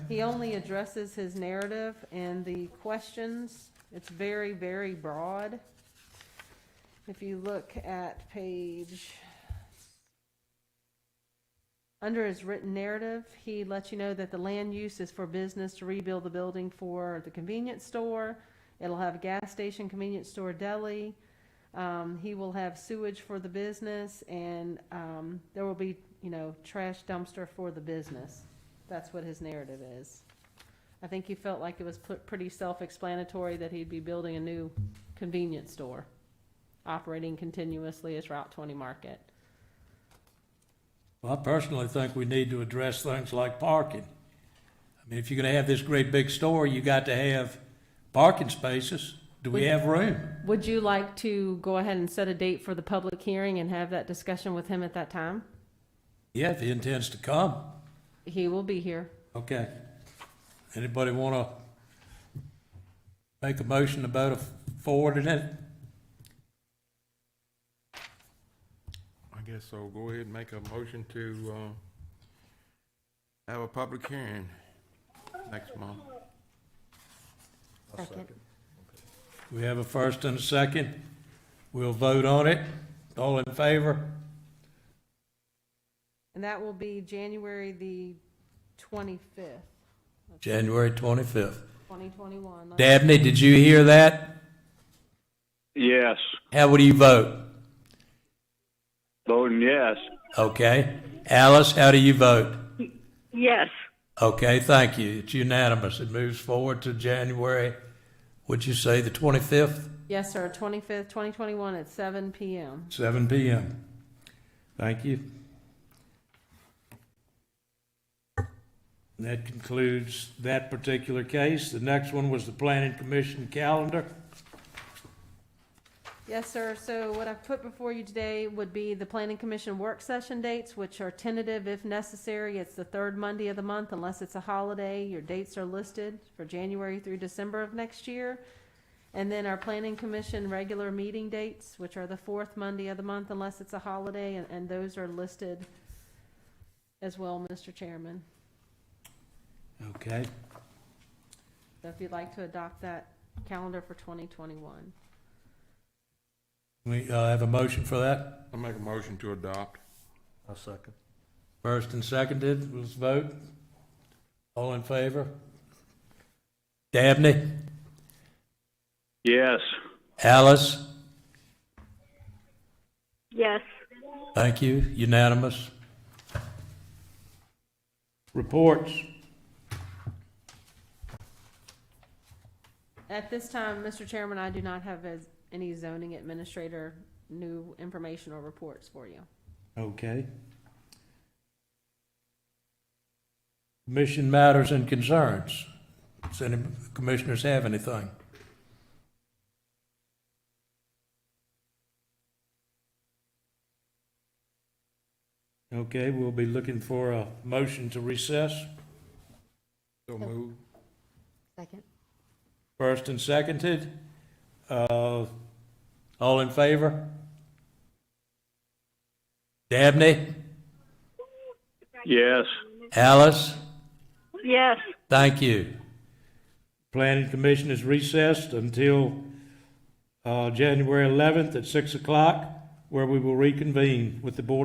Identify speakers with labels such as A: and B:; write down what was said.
A: He only addresses his narrative and the questions. It's very, very broad. If you look at page, under his written narrative, he lets you know that the land use is for business to rebuild the building for the convenience store. It'll have a gas station, convenience store, deli. Um, he will have sewage for the business and, um, there will be, you know, trash dumpster for the business. That's what his narrative is. I think he felt like it was put, pretty self-explanatory that he'd be building a new convenience store, operating continuously as Route twenty market.
B: Well, I personally think we need to address things like parking. I mean, if you're gonna have this great big store, you got to have parking spaces. Do we
A: We-
B: have room?
A: Would you like to go ahead and set a date for the public hearing and have that discussion with him at that time?
B: Yeah, if he intends to come,
A: He will be here.
B: okay. Anybody wanna make a motion about forwarding it?
C: I guess so. Go ahead and make a motion to, uh, have a public hearing next month.
B: We have a first and a second. We'll vote on it. All in favor?
A: And that will be January the twenty-fifth,
B: January twenty-fifth.
A: twenty twenty-one.
B: Dabney, did you hear that?
D: Yes,
B: How would you vote?
D: voting yes.
B: Okay. Alice, how do you vote?
E: Yes,
B: Okay, thank you. It's unanimous. It moves forward to January, would you say, the 25th?
A: Yes, sir, twenty-fifth, twenty twenty-one at seven PM.
B: seven PM. Thank you. And that concludes that particular case. The next one was the Planning Commission calendar.
A: Yes, sir. So what I've put before you today would be the planning commission work session dates, which are tentative if necessary. It's the third Monday of the month unless it's a holiday. Your dates are listed for January through December of next year. And then our planning commission regular meeting dates, which are the fourth Monday of the month unless it's a holiday, and, and those are listed as well, Mr. Chairman.
B: Okay,
A: So if you'd like to adopt that calendar for twenty twenty-one.
B: we uh, have a motion for that.
C: I make a motion to adopt.
F: I'll second.
B: First and seconded, let's vote. All in favor? Dabney?
D: Yes,
B: Alice?
E: yes.
B: Thank you, unanimous. Reports.
A: At this time, Mr. Chairman, I do not have as- any zoning administrator new information or reports for you.
B: Okay. Commission matters and concerns. Does any commissioners have anything? Okay, we'll be looking for a motion to recess.
C: So move.
A: Second.
B: First and seconded. Uh, All in favor? Dabney?
D: yes,
B: Alice?
E: Yes,
B: Thank you. Planning Commission is recessed until uh, January 11th at 6 o'clock, where we will reconvene with the Board